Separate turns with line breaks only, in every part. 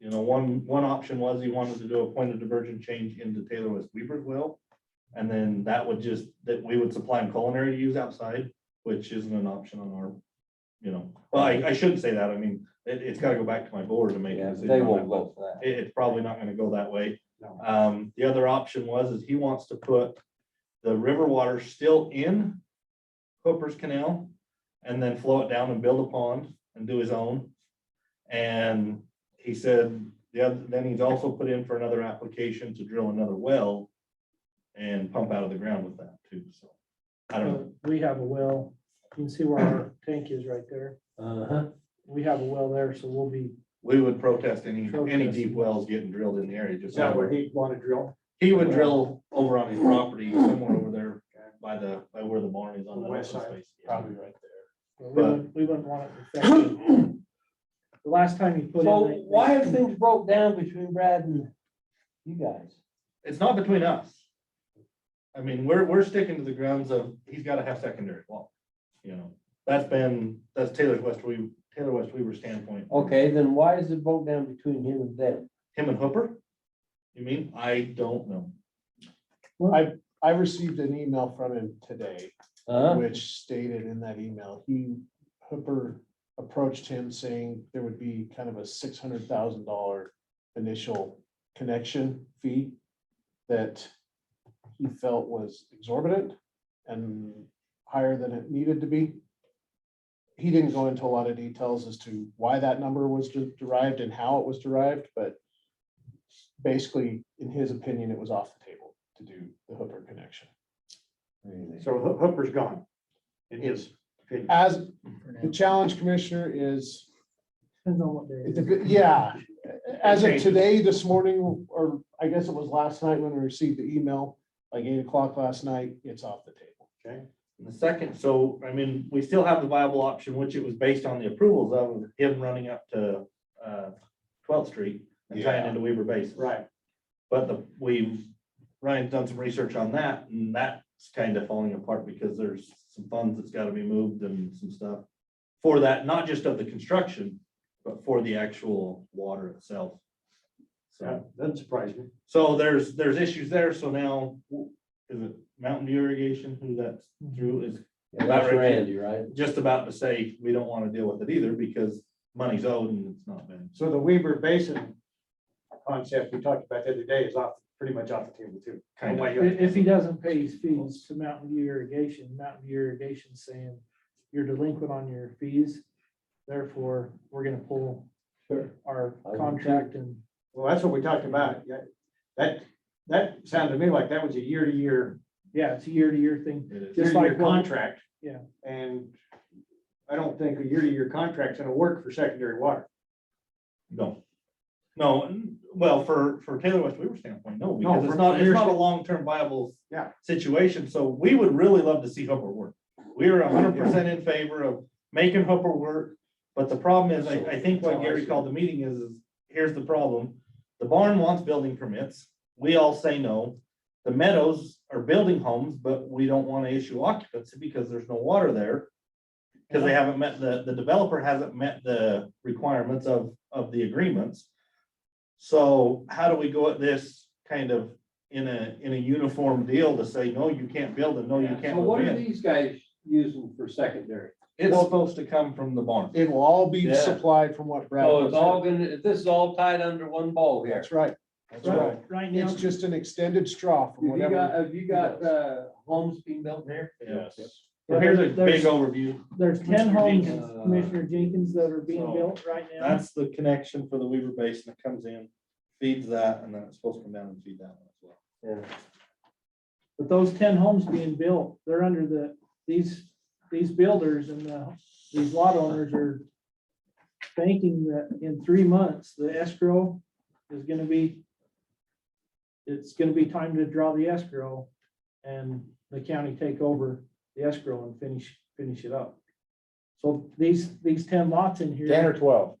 You know, one, one option was he wanted to do a point of diversion change into Taylor West Weaverville. And then that would just, that we would supply him culinary to use outside, which isn't an option on our, you know, well, I, I shouldn't say that. I mean, it, it's gotta go back to my board to make. a
Yeah,
decision
they
on
won't
that,
vote for
but It, it's probably not gonna go that way.
No.
Um, the other option was, is he wants to put the river water still in Hooper's Canal and then flow it down and build a pond and do his own. And he said, the other, then he's also put in for another application to drill another well and pump out of the ground with that too, so. I don't know,
We have a well, you can see where our tank is right there.
that. Uh-huh.
We have a well there, so we'll be,
we would protest any, any
Protest.
deep wells getting drilled in the area, just.
he wanted to drill?
He would drill over on his property somewhere over there by the, by where the barn is on the west side.
Probably right
we
But-
wouldn't, we wouldn't want it affected. The last time you put
there.
in.
So
they- they-
why have things broke down between Brad and you guys?
It's not between us. I mean, we're, we're sticking to the grounds of, he's gotta have secondary wall, you know, that's been, that's Taylor's West, we, Taylor West Weaver standpoint.
Okay, then why is it broke down between him and them?
Him and Hooper? You mean? I don't know.
I received an email from him today,
Huh?
which stated in that email, he, Hooper approached him saying there would be kind of a six hundred thousand dollar initial connection fee that he felt was exorbitant and higher than it needed to be. He didn't go into a lot of details as to why that number was de- derived and how it was derived, but basically, in his opinion, it was off the table to do the Hooper connection.
So Hoo- Hooper's gone. In his opinion.
As, the challenge commissioner is,
Depends on what day. it
it's
is.
a bit- yeah, as of today, this morning, or I guess it was last night when we received the email, like eight o'clock last night, it's off the table.
And The second, so, I mean, we still have the viable option, which it was based on the approvals of him running up to, uh, Twelfth Street and tying
Yeah.
into Weaver Basin.
Right.
But the, we've, Ryan's done some research on that, and that's kind of falling apart because there's some funds that's gotta be moved and some stuff. For that, not just of the construction, but for the actual water itself. So,
That Doesn't surprise me.
so there's, there's issues there, so now, is it Mountain Dew Irrigation, who that's through, is
Yeah, That's
About right.
Randy, right?
just about to say, we don't wanna deal with it either, because money's owed and it's not been.
So the Weaver Basin concept we talked about the other day is off, pretty much off the table too.
Kind of.
Why you-
If, if he doesn't pay his fees to Mountain View Irrigation, Mountain View Irrigation saying you're delinquent on your fees, therefore, we're gonna pull
Sure.
our
I would
contract and
Well, that's what we talked about. Yeah, that, that sounded to me like that was a year-to-year,
Yeah, it's a year-to-year thing.
It is.
Just
year-to-year
like what-
contract.
Yeah.
And I don't think a year-to-year contract's gonna work for secondary water.
No. No, n- well, for, for Taylor West Weaver standpoint, no,
No,
because it's
for-
not, it's
for-
not a long-term viable.
Yeah.
Situation, so we would really love to see Hooper work. We are hundred percent in favor of making Hooper work. But the problem is, I, I think what Gary called the meeting is, is here's the problem. The barn wants building permits. We all say no. The meadows are building homes, but we don't want to issue occupancy because there's no water there. Because they haven't met, the, the developer hasn't met the requirements of, of the agreements. So how do we go at this kind of in a, in a uniform deal to say, no, you can't build and no, you can't
So what
move
are
in?
these guys using for secondary?
It's supposed to come from the barn.
It will all be
Yeah.
supplied from what Brad.
So Oh, it's
was-
all gonna, this is all tied under one ball here.
That's right, that's right.
Right now,
It's just an extended straw from
Have you got,
whatever.
have you got, uh, homes being built here?
Yes.
Yeah,
Here's a
there's-
big overview.
there's ten homes,
Jenkins.
Commissioner Jenkins, that are being
uh, So,
built right now.
That's the connection for the Weaver Basin that comes in, feeds that, and then it's supposed to come down and feed that one as well.
But those ten homes being built, they're under the, these, these builders and the, these lot owners are thinking that in three months, the escrow is gonna be, it's gonna be time to draw the escrow and the county take over the escrow and finish, finish it up. So these, these ten lots in here.
or twelve.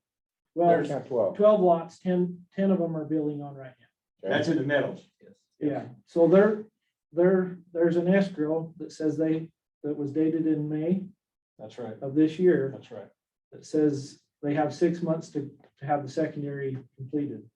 Well,
twelve.
twelve lots, 10 10 of them are building on right
That's in the meadows.
now. Yeah, so there, there, there's an escrow that says they, that was dated in May
That's right,
of this year,
that's right.
that says they have six months to, to have the secondary completed.